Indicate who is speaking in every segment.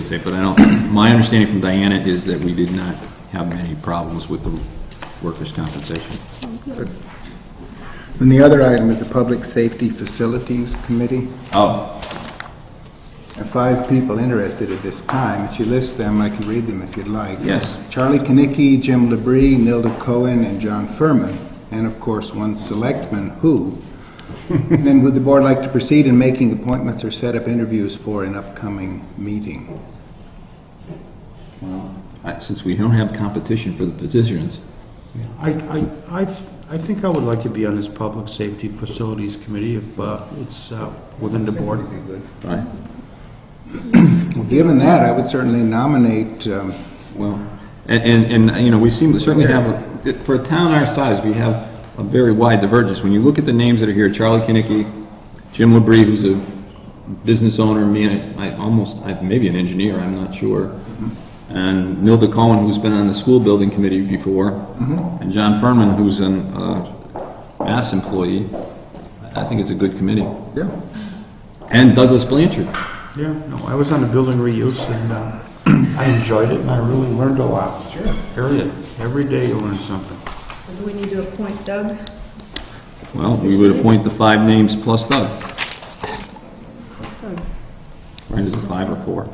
Speaker 1: videotape, but I don't, my understanding from Diana is that we did not have many problems with the workers' compensation.
Speaker 2: And the other item is the Public Safety Facilities Committee.
Speaker 1: Oh,
Speaker 2: There are five people interested at this time. If you list them, I can read them if you'd like.
Speaker 1: Yes.
Speaker 2: Charlie Kinnicky, Jim Labrie, Nilda Cohen, and John Furman, and of course, one selectman, who? And Then would the board like to proceed in making appointments or set up interviews for an upcoming meeting?
Speaker 1: I- since we don't have competition for the positions,
Speaker 3: Yeah, I, I, I, I think I would like to be on this Public Safety Facilities Committee if uh, it's uh, within the board.
Speaker 1: right?
Speaker 2: Well, given that, I would certainly nominate, um,
Speaker 1: Well, and, and, and, you know, we seem, certainly have, for a town our size, we have a very wide divergence. When you look at the names that are here, Charlie Kinnicky, Jim Labrie, who's a business owner, man, I almost, I, maybe an engineer, I'm not sure. And Nilda Cohen, who's been on the school building committee before, and John Furman, who's an, uh, mass employee. I think it's a good committee.
Speaker 2: yeah,
Speaker 1: And Douglas Blanchard.
Speaker 3: Yeah, no, I was on the building reuse and uh, I enjoyed it and I really learned a lot. Sure. Period. Every day you learn something.
Speaker 4: So do we need to appoint Doug?
Speaker 1: Well, we would appoint the five names plus Doug.
Speaker 4: Doug.
Speaker 1: Right, is it five or four?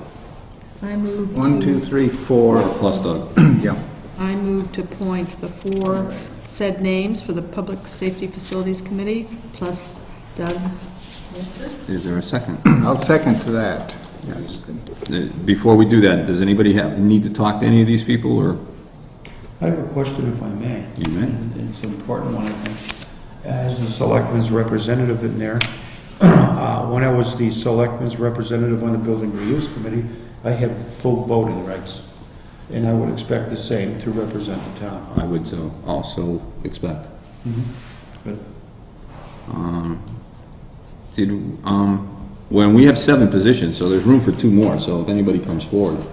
Speaker 4: I move to...
Speaker 2: one, two, three, four,
Speaker 1: Plus Doug.
Speaker 2: yeah.
Speaker 4: I move to appoint the four said names for the Public Safety Facilities Committee, plus Doug.
Speaker 1: Is there a second?
Speaker 2: I'll second to that.
Speaker 1: Uh, Before we do that, does anybody have, need to talk to any of these people, or?
Speaker 3: I have a question if I may.
Speaker 1: You may.
Speaker 3: And It's an important one, I think. As the selectman's representative in there, uh, when I was the selectman's representative on the building reuse committee, I had full voting rights. And I would expect the same to represent the town.
Speaker 1: I would so, also expect.
Speaker 3: But
Speaker 1: Um, Did, um, when we have seven positions, so there's room for two more, so if anybody comes forward,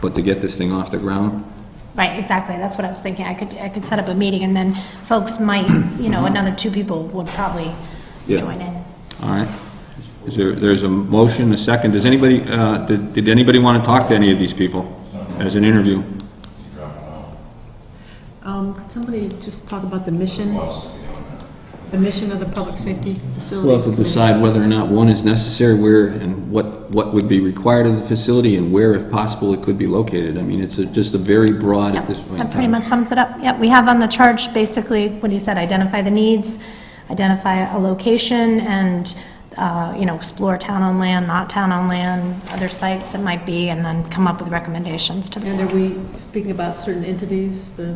Speaker 1: but to get this thing off the ground,
Speaker 5: Right, exactly, that's what I was thinking, I could, I could set up a meeting, and then folks might, you know, another two people would probably
Speaker 1: Mm-hmm. Yeah.
Speaker 5: join in.
Speaker 1: all right? Is there, there's a motion, a second, does anybody, uh, did, did anybody want to talk to any of these people as an interview?
Speaker 4: Um, could somebody just talk about the mission? The mission of the Public Safety
Speaker 1: Well,
Speaker 4: Facilities
Speaker 1: to
Speaker 4: Committee?
Speaker 1: decide whether or not one is necessary, where and what, what would be required of the facility, and where, if possible, it could be located. I mean, it's a- just a very broad at this point in
Speaker 5: That pretty
Speaker 1: time.
Speaker 5: much sums it up, yeah, we have on the charge, basically, what he said, identify the needs, identify a location, and, uh, you know, explore town on land, not town on land, other sites that might be, and then come up with recommendations to the
Speaker 4: And are we speaking about certain entities, the...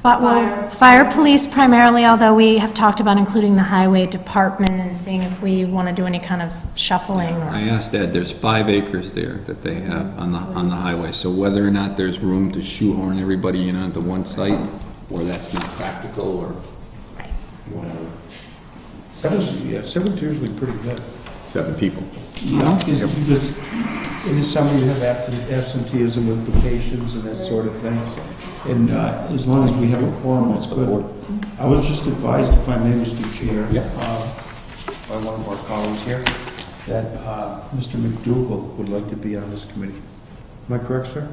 Speaker 5: But,
Speaker 4: Fire.
Speaker 5: well, fire police primarily, although we have talked about including the highway department and seeing if we want to do any kind of shuffling
Speaker 1: I
Speaker 5: or,
Speaker 1: asked Ed, there's five acres there that they have on the, on the highway, so whether or not there's room to shoehorn everybody in onto one site, or that's not practical, or whatever.
Speaker 3: Seven's, yeah, seven's usually pretty good.
Speaker 1: Seven people.
Speaker 3: Yeah. In the summer, you have abs- absenteeism with vacations and that sort of thing. And uh, as long as we have a quorum, that's good. I was just advised, if I may, Mr. Chair, uh, by one of our colleagues here, that uh, Mr. McDougal would like to be on this committee. Am I correct, sir?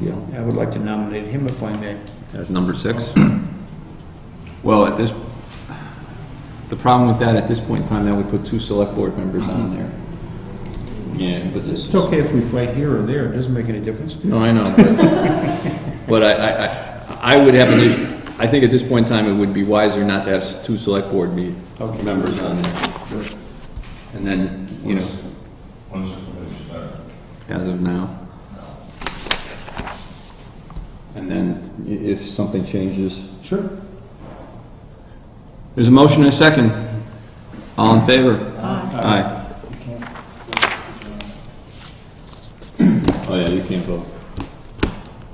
Speaker 3: Yeah, I would like to nominate him if I may.
Speaker 1: That's number six. Well, at this, the problem with that, at this point in time, that would put two select board members on there. Yeah, but this
Speaker 3: It's okay if we fight here or there, it doesn't make any difference.
Speaker 1: No, I know, but, but I- I, I, I would have an issue, I think at this point in time, it would be wiser not to have s- two select board me,
Speaker 3: Okay.
Speaker 1: members on there. And then, you know,
Speaker 6: When's the commission start?
Speaker 1: as of now. And then i- if something changes.
Speaker 3: Sure.
Speaker 1: There's a motion and a second. All in favor? Aye. Oh, yeah, you can't vote,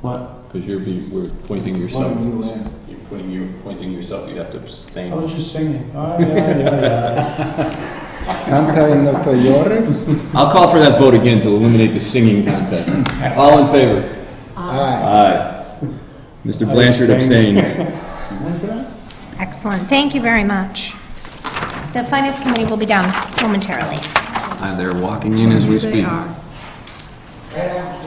Speaker 3: What?
Speaker 1: because you're, be- we're pointing yourself. You're putting, you're pointing yourself, you have to
Speaker 3: I
Speaker 1: abstain.
Speaker 3: was just singing. Ah, yeah, yeah, yeah.
Speaker 2: Canta en los Toyores?
Speaker 1: I'll call for that vote again to eliminate the singing contest. All in favor?
Speaker 2: Aye.
Speaker 1: Aye. Mr. Blanchard
Speaker 3: abstain.
Speaker 1: abstains.
Speaker 5: excellent, thank you very much. The finance committee will be down momentarily.
Speaker 1: Uh, They're walking in as we speak.
Speaker 4: They are.